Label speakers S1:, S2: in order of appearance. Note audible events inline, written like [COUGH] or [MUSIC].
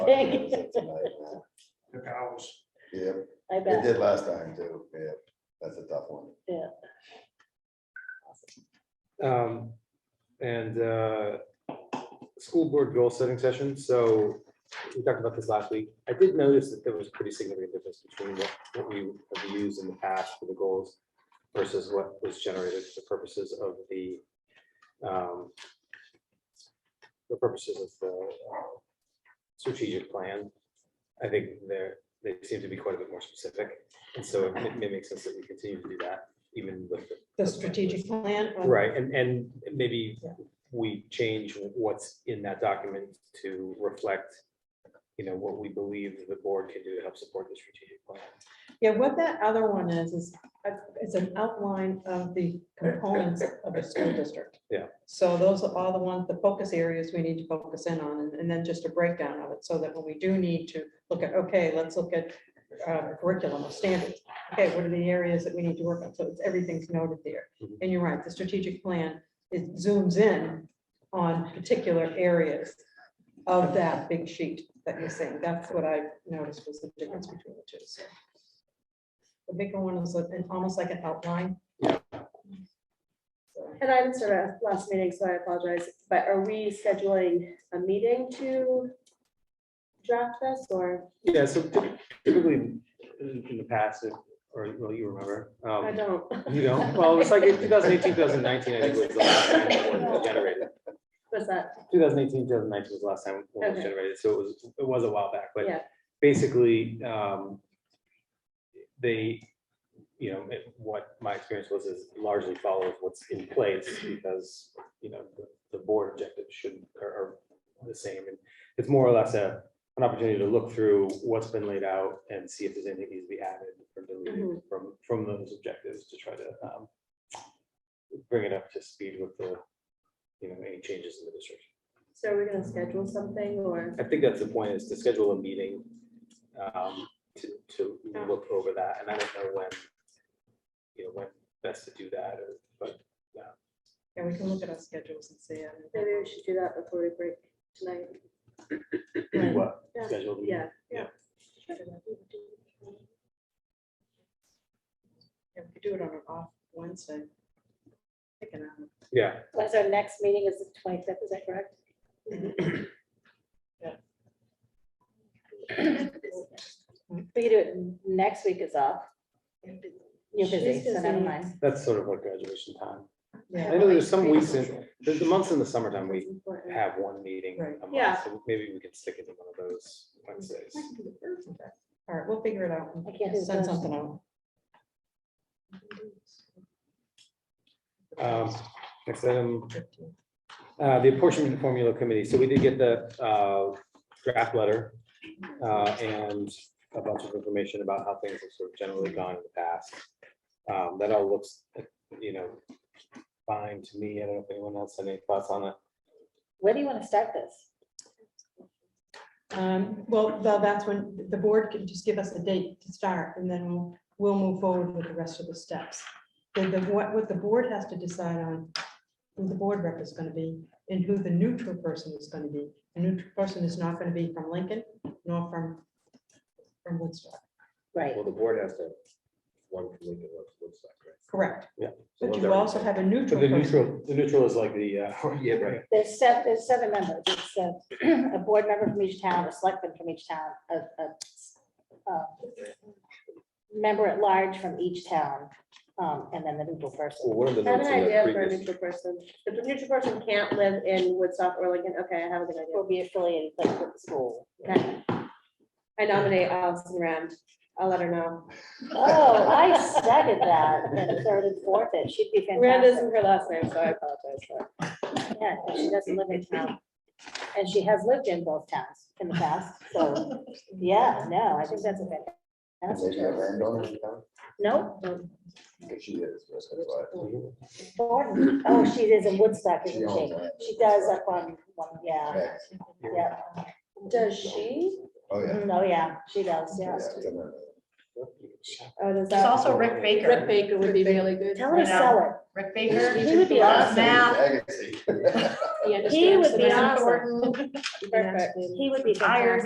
S1: Yeah,
S2: the cows.
S3: I
S1: it
S3: bet.
S1: did last time too. Yeah, that's a tough one.
S4: Um, and, uh, school board goal setting session, so we talked about this last week. I did notice that there was pretty significant difference between what, what we have used in the past for the goals versus what was generated for the purposes of the, um, the purposes of the uh, strategic plan. I think there, they seem to be quite a bit more specific, and so it may- may make sense that we continue to do that, even with the
S3: The strategic plan. or-
S4: Right, and, and maybe
S3: Yeah.
S4: we change what's in that document to reflect, you know, what we believe the board can do to help support the strategic plan.
S3: Yeah, what that other one is, is, it's an outline of the components of the school district.
S4: Yeah.
S3: So those are all the ones, the focus areas we need to focus in on, and- and then just a breakdown of it, so that when we do need to look at, okay, let's look at uh, curriculum or standards. Okay, what are the areas that we need to work on? So it's, everything's noted there.
S4: Mhm.
S3: And you're right, the strategic plan, it zooms in on particular areas of that big sheet that you're seeing. That's what I noticed was the difference between the two, so. The bigger one is like- and almost like an outline.
S4: Yeah.
S3: So,
S5: And I'm sort of last meeting, so I apologize, but are we scheduling a meeting to draft this or?
S4: Yeah, so typically, in in the past, if- or, well, you remember,
S5: I
S4: um,
S5: don't.
S4: you know, well, it was like in 2018, 2019, I think was the last time the board
S5: [LAUGHS]
S4: was generated.
S5: Was that,
S4: 2018, 2019 was the last time one was
S5: Okay.
S4: generated, so it was, it was a while back, but
S5: Yeah.
S4: basically, um, they, you know, it- what my experience was is largely follows what's in place because, you know, the, the board objectives should, are, are the same. And it's more or less a, an opportunity to look through what's been laid out and see if there's anything needs to be added or
S5: Mm-hmm.
S4: deleted from, from those objectives to try to, um, bring it up to speed with the, you know, any changes in the district.
S5: so are we gonna schedule something or?
S4: I think that's the point, is to schedule a meeting um, to, to look over that, and I don't know when, you know, when best to do that, or, but,
S3: Yeah, we can look at our schedules and see. um,
S5: Maybe we should do that before we break tonight.
S4: do what,
S5: Yeah.
S4: schedule the meeting.
S5: Yeah.
S3: yeah, we could Do it on an off Wednesday. Pick an hour.
S4: Yeah,
S5: Was our next meeting is the twenty-fifth, is that correct?
S3: Yeah.
S5: We could do it next week is off. You're busy, so never mind.
S4: that's sort of like graduation time. I
S3: Yeah,
S4: know there's some weeks in, there's the months in the summertime, we have one meeting
S3: Right.
S4: a month,
S5: Yeah.
S4: so maybe we can stick it in one of those Wednesdays.
S3: all right, we'll figure it out.
S5: I can't do
S3: and Send
S5: Thursday.
S3: something out.
S4: Um, Next item, Uh, the apportionment formula committee, so we did get the, uh, draft letter, uh, and a bunch of information about how things have sort of generally gone in the past. Um, that all looks, you know, fine to me, I don't know if anyone else had any thoughts on it.
S5: Where do you want to start this?
S3: Um, well, tha- that's when the board can just give us a date to start and then we'll, we'll move forward with the rest of the steps. Then the, what, what the board has to decide on, who the board rep is gonna be and who the neutral person is gonna be. The neutral person is not gonna be from Lincoln nor from, from Woodstock.
S5: Right.
S6: Well, the board has to, have one from Lincoln, one from Woodstock, right?
S3: Correct.
S6: So
S3: But
S6: one's
S3: you
S6: every-
S3: also have a
S4: So
S3: neutral
S4: the
S3: person.
S4: neutral, the neutral is like the, uh, [LAUGHS]
S6: Yeah, right.
S5: There's seven, there's seven members. It's a, a board member from each town, a selectman from each town, a, a, uh, member at large from each town, um, and then the neutral person.
S6: Well, one of the
S5: I have
S6: notes
S5: an
S6: in
S5: idea
S6: that
S5: for a
S6: previous,
S5: neutral person. If the neutral person can't live in Woodstock or Lincoln, okay, I have a good idea. Will be affiliated like, with the school. I nominate Allison Rand. I'll let her know.
S1: Oh, I
S5: second that, and third and fourth, it should be
S7: Rand
S5: fantastic.
S7: isn't her last name, so I apologize. for that.
S5: Yeah, and she doesn't live in town. And she has lived in both towns in the past, so, yeah, no, I think that's a bit. That's
S1: Maybe a
S5: true.
S1: landowner in town,
S5: No,
S1: because she is, that's why.
S5: Thornton, oh, she is in Woodstock,
S1: She
S5: isn't
S1: owns
S5: she?
S1: that.
S5: She does up on, one, yeah, yeah.
S7: Does she?
S1: Oh, yeah.
S5: Mm, Oh, yeah, she does,
S1: Yeah,
S5: yeah.
S1: it's in there.
S5: Oh, does
S7: There's
S5: that,
S8: also Rick Baker.
S7: Rick Baker would be really good.
S5: tell her to
S8: I know.
S5: sell it.
S8: Rick Baker.
S5: He would be
S8: loves
S5: awesome.
S8: math.
S1: Agassi.
S7: Yeah,
S1: [LAUGHS]
S7: just
S5: He would
S7: Anderson
S5: be
S7: and
S5: awesome.
S7: Thornton. Perfect.
S5: He would be
S8: Tired.
S5: fantastic.